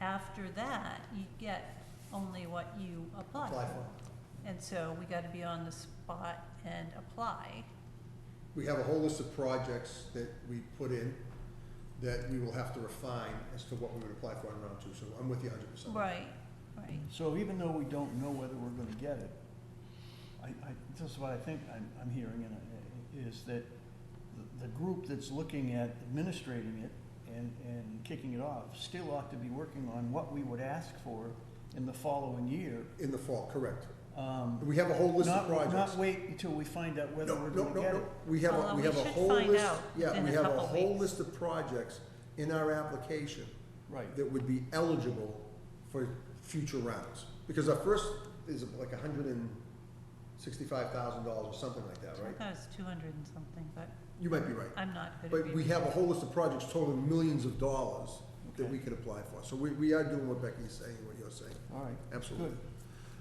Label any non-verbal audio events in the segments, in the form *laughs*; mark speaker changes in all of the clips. Speaker 1: after that, you get only what you apply
Speaker 2: apply
Speaker 1: for.
Speaker 2: for.
Speaker 1: And so we gotta be on the spot and apply.
Speaker 2: We have a whole list of projects that we put in that we will have to refine as to what we would apply for in round two, so I'm with you hundred percent.
Speaker 1: Right, right.
Speaker 3: So even though we don't know whether we're gonna get it, I, I, this is what I think I'm, I'm hearing, and I, is that the, the group that's looking at administrating it and, and kicking it off still ought to be working on what we would ask for in the following year.
Speaker 2: In the fall, correct.
Speaker 3: Um,
Speaker 2: We have a whole list of
Speaker 3: not,
Speaker 2: projects.
Speaker 3: not wait until we find out whether
Speaker 2: No,
Speaker 3: we're
Speaker 2: no,
Speaker 3: gonna
Speaker 2: no,
Speaker 3: get
Speaker 2: no,
Speaker 3: it.
Speaker 2: we have,
Speaker 1: Although
Speaker 2: a- we
Speaker 1: we
Speaker 2: have a
Speaker 1: should
Speaker 2: whole
Speaker 1: find
Speaker 2: list,
Speaker 1: out
Speaker 2: yeah,
Speaker 1: within
Speaker 2: we
Speaker 1: a
Speaker 2: have a
Speaker 1: couple
Speaker 2: whole
Speaker 1: weeks.
Speaker 2: list of projects in our application
Speaker 3: Right,
Speaker 2: that would be eligible for future rounds. Because our first is like hundred and sixty-five thousand dollars or something like that,
Speaker 1: I
Speaker 2: right?
Speaker 1: thought it was two hundred and something, but
Speaker 2: You might be right.
Speaker 1: I'm not good at
Speaker 2: But we
Speaker 1: reading.
Speaker 2: have a whole list of projects totaling millions of dollars that
Speaker 3: Okay.
Speaker 2: we could apply for. So we, we are doing what Becky's saying, what you're saying,
Speaker 3: all right,
Speaker 2: absolutely.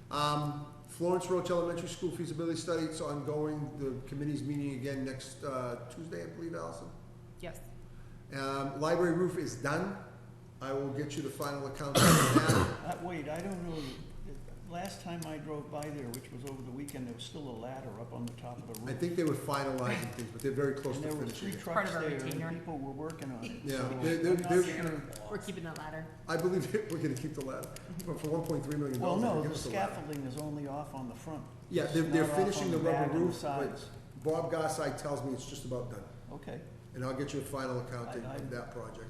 Speaker 3: good.
Speaker 2: Um, Florence Roach Elementary School feasibility study, it's ongoing. The committee's meeting again next, uh, Tuesday, I believe, Allison.
Speaker 4: Yes.
Speaker 2: Um, library roof is done. I will get you the final account on that.
Speaker 3: Uh, wait, I don't know, uh, last time I drove by there, which was over the weekend, there was still a ladder up on the top of the roof.
Speaker 2: I think they were finalizing things, but they're very close
Speaker 3: And
Speaker 2: to
Speaker 3: there were three
Speaker 2: finishing it.
Speaker 4: Part
Speaker 3: trucks
Speaker 4: of our
Speaker 3: there,
Speaker 4: retainer.
Speaker 3: and people were working on it.
Speaker 2: Yeah,
Speaker 3: so
Speaker 2: they're, they're,
Speaker 3: I'm not
Speaker 2: they're,
Speaker 4: We're keeping the ladder.
Speaker 2: I believe *laughs* we're gonna keep the ladder, but for one point three million
Speaker 3: Well,
Speaker 2: dollars, they're
Speaker 3: no,
Speaker 2: gonna give
Speaker 3: the
Speaker 2: us the ladder.
Speaker 3: scaffolding is only off on the front.
Speaker 2: Yeah,
Speaker 3: It's
Speaker 2: they're, they're
Speaker 3: not off on
Speaker 2: finishing the
Speaker 3: back
Speaker 2: rubber
Speaker 3: and the
Speaker 2: roof, but
Speaker 3: sides.
Speaker 2: Bob Gossai tells me it's just about done,
Speaker 3: Okay,
Speaker 2: and I'll get you a final account
Speaker 3: I-
Speaker 2: of
Speaker 3: I-
Speaker 2: of that project.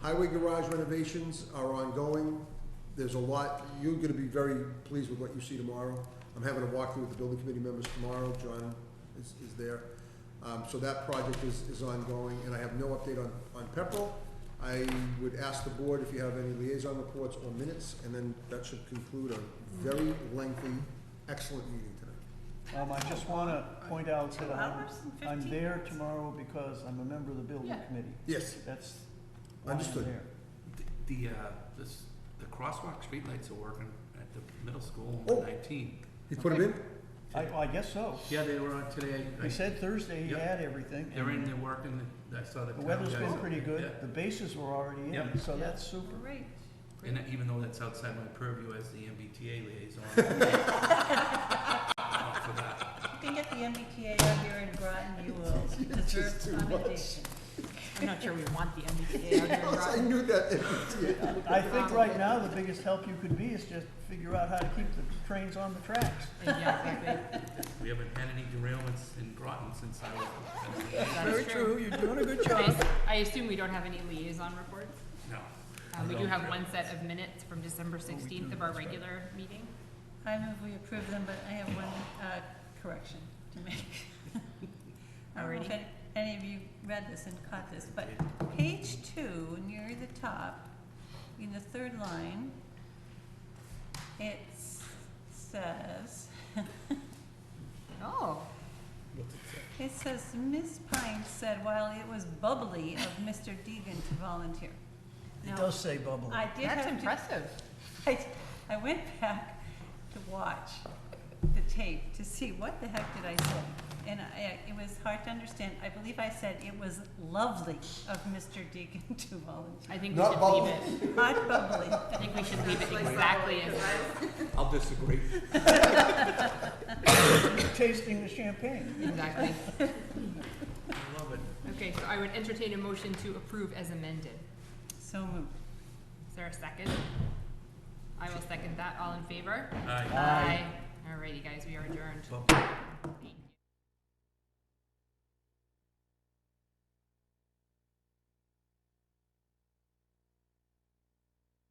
Speaker 2: Highway garage renovations are ongoing, there's a lot, you're gonna be very pleased with what you see tomorrow. I'm having a walkthrough with the building committee members tomorrow, John is, is there. Um, so that project is, is ongoing, and I have no update on, on Pepperell. I would ask the board if you have any liaison reports or minutes, and then that should conclude a very lengthy, excellent meeting tonight.
Speaker 3: um, I just wanna point out
Speaker 1: Two
Speaker 3: that I'm,
Speaker 1: hours and
Speaker 3: I'm
Speaker 1: 15
Speaker 3: there
Speaker 1: minutes?
Speaker 3: tomorrow because I'm a member of the building
Speaker 4: Yeah.
Speaker 3: committee.
Speaker 2: Yes,
Speaker 3: That's why I'm
Speaker 2: Understood.
Speaker 3: there.
Speaker 5: The, the, uh, this, the crosswalk streetlights are working at the middle school
Speaker 2: Oh.
Speaker 5: on nineteenth.
Speaker 2: you put them in? *laughs*
Speaker 3: I, I guess so.
Speaker 5: Yeah, they were on today. I-
Speaker 3: He said Thursday he
Speaker 5: Yep.
Speaker 3: had everything.
Speaker 5: They're in,
Speaker 3: and
Speaker 5: they're working, I saw the.
Speaker 3: The
Speaker 5: town
Speaker 3: weather's
Speaker 5: guys
Speaker 3: been
Speaker 5: up
Speaker 3: pretty
Speaker 5: there,
Speaker 3: good,
Speaker 5: yeah.
Speaker 3: the bases were already in,
Speaker 5: Yep.
Speaker 3: so
Speaker 1: Yeah.
Speaker 3: that's super.
Speaker 1: Great.
Speaker 5: And even though that's outside my purview as the
Speaker 3: *laughs*
Speaker 5: MBTA liaison. I'm for that.
Speaker 1: You can get the MBTA out here in Groton,
Speaker 2: *laughs*
Speaker 1: you will deserve
Speaker 2: too
Speaker 1: commendation.
Speaker 4: I'm not sure we want the
Speaker 2: *laughs*
Speaker 4: MBTA out here in
Speaker 2: I
Speaker 4: Groton.
Speaker 2: knew that.
Speaker 3: I think right now, the biggest help you could be is just figure out how to keep the trains on the tracks.
Speaker 4: Yeah, exactly.
Speaker 5: We haven't had any derailments in Groton since I was,
Speaker 4: That is true.
Speaker 3: Oh, you're doing a good
Speaker 4: I ass- I assume we don't have any liaison reports.
Speaker 5: no.
Speaker 4: Um, we do
Speaker 5: No.
Speaker 4: have one set of minutes from December sixteenth of our regular meeting.
Speaker 1: I move we approve them, but I have one uh, correction to
Speaker 4: *laughs*
Speaker 1: make. I don't know if
Speaker 4: Alrighty.
Speaker 1: any- Any of you read this and caught this, but page two, near the top, in the third line, it s- says, *laughs*
Speaker 4: Oh,
Speaker 1: it says, Ms. Pine said while it was bubbly of Mr. Deegan to volunteer.
Speaker 3: It
Speaker 1: Now,
Speaker 3: does say bubbly.
Speaker 1: I did have
Speaker 4: that's
Speaker 1: to
Speaker 4: impressive.
Speaker 1: I, I went back to watch the tape to see what the heck did I say. And I, it was hard to understand. I believe I said it was lovely of Mr. Deacon *laughs* to volunteer.
Speaker 4: I think we
Speaker 2: Not
Speaker 4: should
Speaker 2: both.
Speaker 4: leave it.
Speaker 1: Hot bubbly.
Speaker 4: I think we should leave it exactly as.
Speaker 5: I'll disagree.
Speaker 3: Tasting the champagne.
Speaker 4: Exactly.
Speaker 5: I love it.
Speaker 4: Okay, so I would entertain a motion to approve as amended.
Speaker 1: So moved.
Speaker 4: Is there a second? I will second that. All in favor?
Speaker 5: Aye.
Speaker 3: Aye.
Speaker 4: Alrighty, guys, we are adjourned.
Speaker 5: Well,
Speaker 4: Eight